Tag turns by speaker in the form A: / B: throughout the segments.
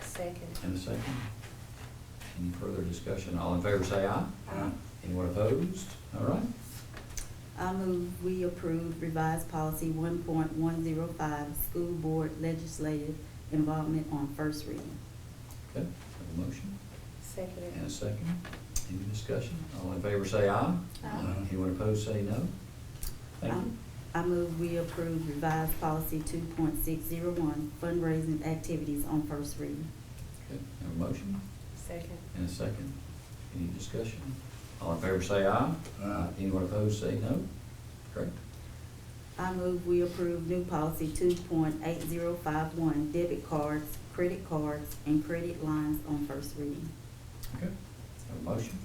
A: second.
B: And a second. Any further discussion? All in favor, say aye.
A: Aye.
B: Anyone opposed? All right.
C: I move we approve revised policy one point one zero five, school board legislative involvement on first reading.
B: Okay, have a motion and a
A: Second.
B: second. Any discussion? All in favor, say aye.
A: Aye.
B: Anyone opposed, say no. Thank you.
C: Um, I move we approve revised policy two point six zero one, fundraising activities on first reading.
B: Okay, have a motion
A: Second.
B: and a second. Any discussion? All in favor, say aye.
D: Aye.
B: Anyone opposed, say no. Correct?
C: I move we approve new policy two point eight zero five one, debit cards, credit cards, and credit lines on first reading.
B: Okay, have a motion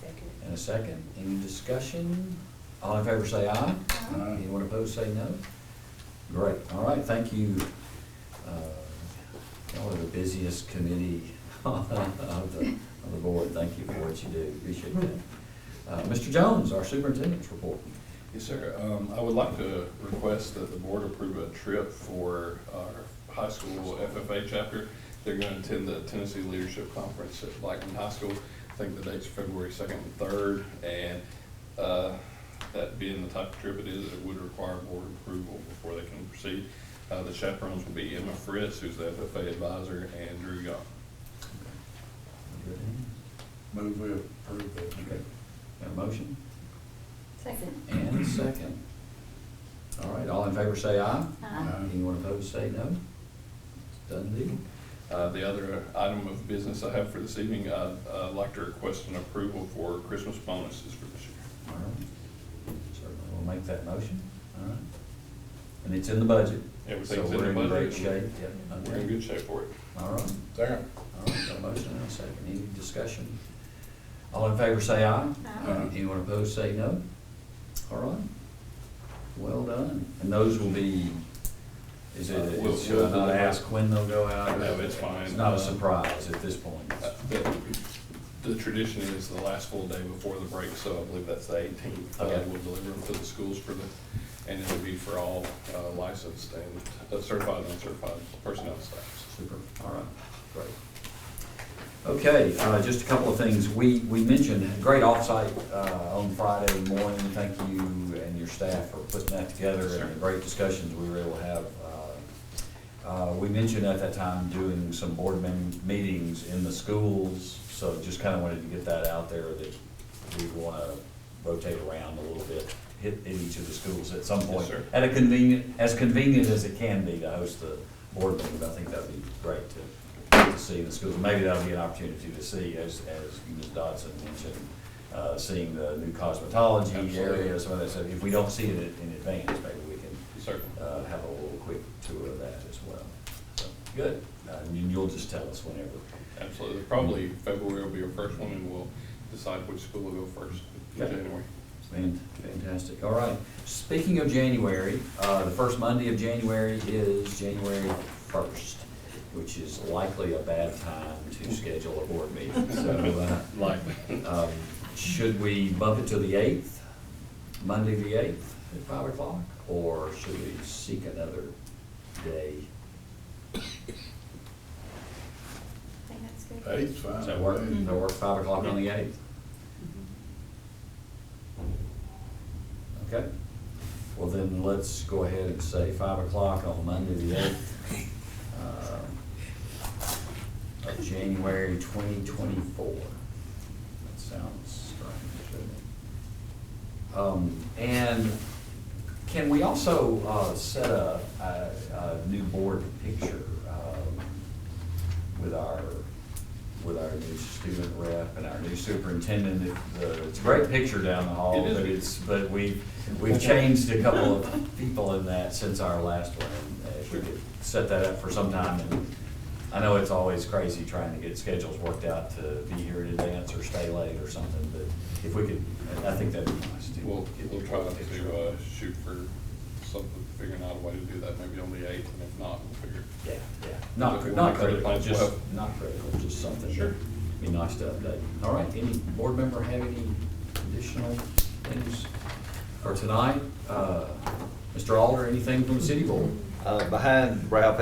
A: Second.
B: and a second. Any discussion? All in favor, say aye.
D: Aye.
B: Anyone opposed, say no. Great, all right, thank you. Uh, Y'all are the busiest committee of the, of the board, thank you for what you do, appreciate that. Uh, Mr. Jones, our superintendent's report.
E: Yes, sir. Um, I would like to request that the board approve a trip for our high school FFA chapter. They're going to attend the Tennessee Leadership Conference at Blackman High School. I think the date's February second and third, and, uh, that being the type of trip it is, it would require board approval before they can proceed. Uh, the chaperones will be Emma Fritz, who's the FFA advisor, and Drew Young.
D: Move we approve that.
B: Okay, got a motion
A: Second.
B: and a second. All right, all in favor, say aye.
D: Aye.
B: Anyone opposed, say no. Done deal.
E: Uh, The other item of business I have for this evening, I'd uh, like to request an approval for Christmas bonuses for this year.
B: All right. Certainly, we'll make that motion. All right. And it's in the budget.
E: Everything's in the
B: So we're in
E: budget.
B: great shape, yep.
E: We're in good shape for it.
B: All right,
D: Second.
B: all right, got a motion and a second. Any discussion? All in favor, say aye.
D: Aye.
B: Anyone opposed, say no. All right. Well done. And those will be, is
E: Uh,
B: it,
E: we'll-
B: should I not ask when they'll go out?
E: No, it's fine.
B: It's not a surprise at this point.
E: Uh, The the tradition is the last full day before the break, so I believe that's the eighteenth. Uh,
B: Okay.
E: We'll deliver them to the schools for the, and it'll be for all uh, licensed and uh, certified and uncertified personnel staffs.
B: Super, all right, great. Okay, uh, just a couple of things. We, we mentioned great offsite uh, on Friday morning. Thank you and your staff for putting that together
E: Sure.
B: and the great discussions we were able to have. Uh, uh, We mentioned at that time doing some board mem- meetings in the schools, so just kind of wanted to get that out there that we want to rotate around a little bit, hit in each of the schools at some
E: Yes,
B: point.
E: sir.
B: At a convenient, as convenient as it can be to host the board meetings, I think that'd be great to, to see in the schools. Maybe that'll be an opportunity to see, as, as Ms. Dodson mentioned, uh, seeing the new cosmetology area,
E: Absolutely.
B: some of that stuff. If we don't see it in advance, maybe we can,
E: Certainly.
B: uh, have a little quick tour of that as well. So, Good, Uh, and you'll just tell us whenever.
E: Absolutely. Probably February will be our first one, and we'll decide which school will go first in
B: Okay.
E: January.
B: Fan- Fantastic, all right. Speaking of January, uh, the first Monday of January is January first, which is likely a bad time to schedule a board meeting, so,
E: Likely.
B: uh, um, should we bump it to the eighth, Monday the eighth at five o'clock? Or should we seek another day?
A: I think that's good.
D: Eight's fine.
B: Does that work, does that work, five o'clock on the eighth?
C: Mm-hmm.
B: Okay, well then, let's go ahead and say five o'clock on Monday the eighth uh, of January twenty twenty-four. That sounds strange, doesn't it? Um, and can we also, uh, set a, a, a new board picture, um, with our, with our new student rep and our new superintendent? If the- It's a great picture down the hall,
E: It is.
B: but it's, but we, we've changed a couple of people in that since our last one. Uh, If we could set that up for some time, and I know it's always crazy trying to get schedules worked out to be here in advance or stay late or something, but if we could, I think that'd be nice to.
E: We'll,
B: get
E: we'll
B: the
E: try
B: picture.
E: to uh, shoot for something, figuring out a way to do that, maybe on the eighth, and if not, we'll figure.
B: Yeah, yeah, not,
E: We'll
B: cri- not
E: make other
B: critical,
E: plans.
B: just,
E: Well-
B: not critical, just something. that
E: Sure.
B: Be nice to update. All right, any board member have any additional things for tonight? Uh, Mr. Alder, anything from the city board?
F: Uh, Behind Ralph